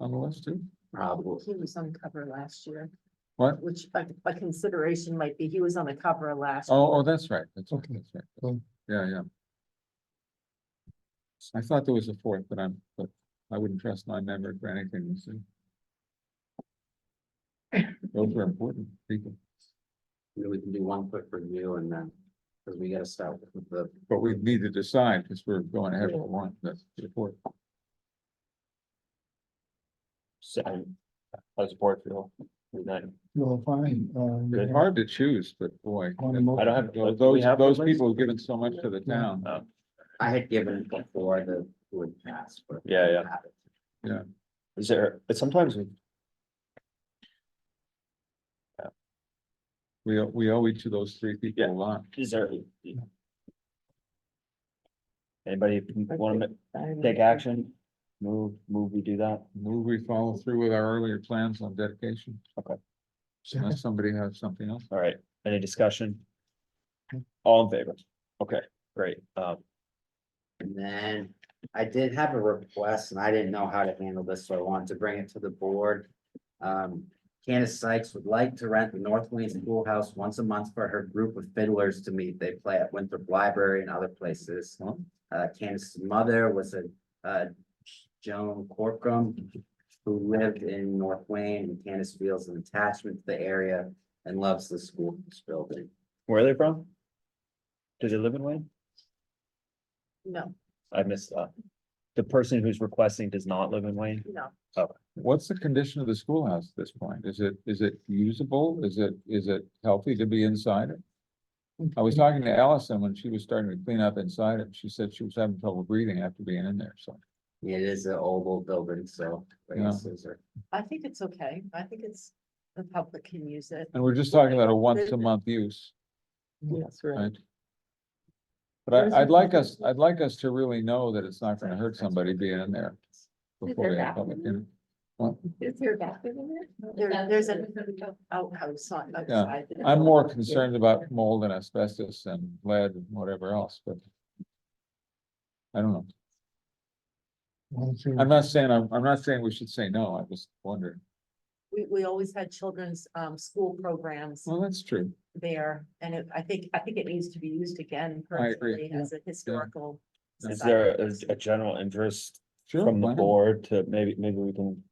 on the list too? Probably. He was on cover last year. What? Which a, a consideration might be, he was on the cover last. Oh, oh, that's right, that's right, Okay. that's right. Cool. Yeah, yeah. I thought there was a fourth, but I'm, but I wouldn't trust my memory for anything, you see. Those are important people, Maybe we can do one quick review and then, because we gotta start with the, but we need to decide, because we're going ahead with one, that's the fourth. Second, I support Phil. We not- Well, fine, uh, It's hard to choose, but boy. On the mo- I don't have. Those, do we those have the those list? people have given so much to the town. Oh, I had given before the would pass, but. Yeah, yeah. Is there, but sometimes we, We, owe- we owe each of those three people a lot. is there? Anybody want to take action? Move, move, we do that? Move we follow through with our earlier plans on dedication, second, unless somebody has something else. All right, any discussion? All in favor? Okay, great. Um, And then I did have a request and I didn't know how to handle this, so I wanted to bring it to the board. Um, Candace Sykes would like to rent the North Wayne Schoolhouse once a month for her group of fiddlers to meet. They play at Winthrop Library and other places. Uh, Candace's mother was a, uh, Joan Corcoran, who lived in North Wayne, and Candace feels an attachment to the area and loves the school building. where are they from? Do they live in Wayne? No, I missed, uh, the person who's requesting does not live in Wayne. no, What's the condition of the schoolhouse at this point? Is it, is it usable? Is it, is it healthy to be inside it? I was talking to Allison when she was starting to clean up inside it. She said she was having trouble breathing after being in there, so. It is an oval building, so. Yeah. races are- I think it's okay. I think it's, the public can use it. And we're just talking about a once a month use, Yes, right. right? But I, I'd like us, I'd like us to really know that it's not gonna hurt somebody being in there. Before we have public, in- Is there a bathroom in There- there's a- Outhouse on, outside. the I'm more building. concerned about mold and asbestos and lead and whatever else, but. I don't know. one, two, I'm not saying, I'm, I'm not saying we should say no, I just wonder. We, we always had children's, um, school programs Well, that's true. there, and it, I think, I think it needs to be used again I agree. personally as a historical. Is society. there a, a general interest Sure. from the why not? board to maybe, maybe we can,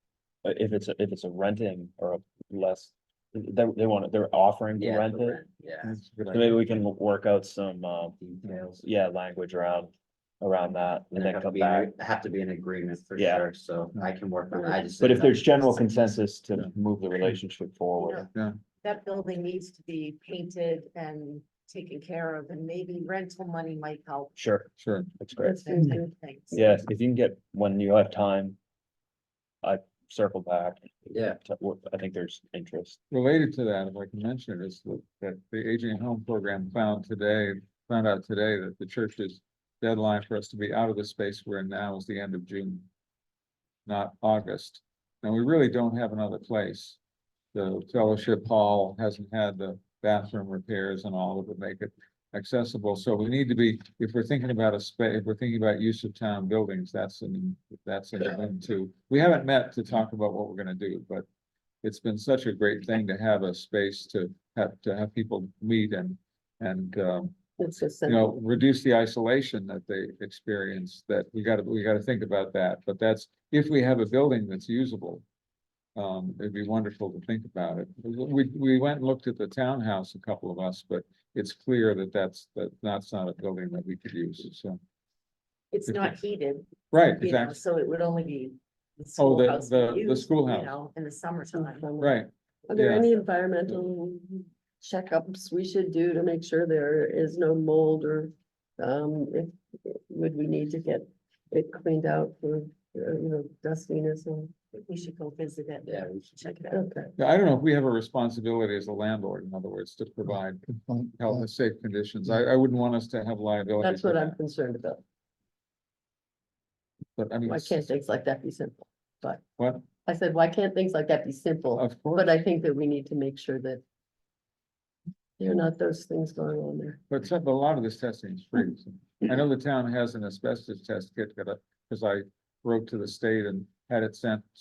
uh, if it's, a if it's a renting or a less, they, they want it, they're offering to Yeah, rent for it. rent, Yeah. That's a good So idea. Maybe we can work out some, um, Details. yeah, language around, around that and There then have to come be, an back. ag- have to be an agreement for Yeah. sure, so I can work on, it. I just. But if didn't know. there's general consensus Yeah. to move the relationship Yeah. forward, that building needs to be painted and taken care of, and maybe rental money might help. sure, Sure. that's great. those type of things. Yeah, if you can get, when you have time, I circle back. Yeah. to what- I think there's interest. Related to that, if I can mention it, is that- that the Aging at Home Program found today, found out today that the church's deadline for us to be out of the space we're in now is the end of June, not August. And we really don't have another place. The fellowship hall hasn't had the bathroom repairs and all of it make it accessible. So we need to be, if we're thinking about a space, if we're thinking about use of town buildings, that's an, that's an event too. We haven't met to talk about what we're gonna do, but it's been such a great thing to have a space to have, to have people meet and, and, um, It's just, you know, reduce the isolation that they experience, that we gotta, we gotta think about that, but that's, if we have a building that's usable. Um, it'd be wonderful to think about it. We, we went and looked at the townhouse, a couple of us, but it's clear that that's, that that's not a building that we could use, so. It's not heated, Right, you know, exactly, so it would only be. the Oh, the- schoolhouse the- the used, you schoolhouse. know, In the summertime. are right. there yeah. any environmental checkups we should do to make sure there is no mold or, um, if, would we need to get it cleaned out for, uh, you know, dustiness and, We should go visit it. Yeah, we should Check it out. okay. Yeah, I don't know if we have a responsibility as a landlord, in other words, to provide good point. health and safe conditions. I, I wouldn't want us to have liability. That's for what that, I'm concerned about. But I mean, Why can't things like that be simple? what, I said, why can't things like that be simple? of course, But I think that we need to make sure that there are not those things going on there. but some, but a lot of this testing is free. so. I know the town has an asbestos test kit that I, because I wrote to the state and had it sent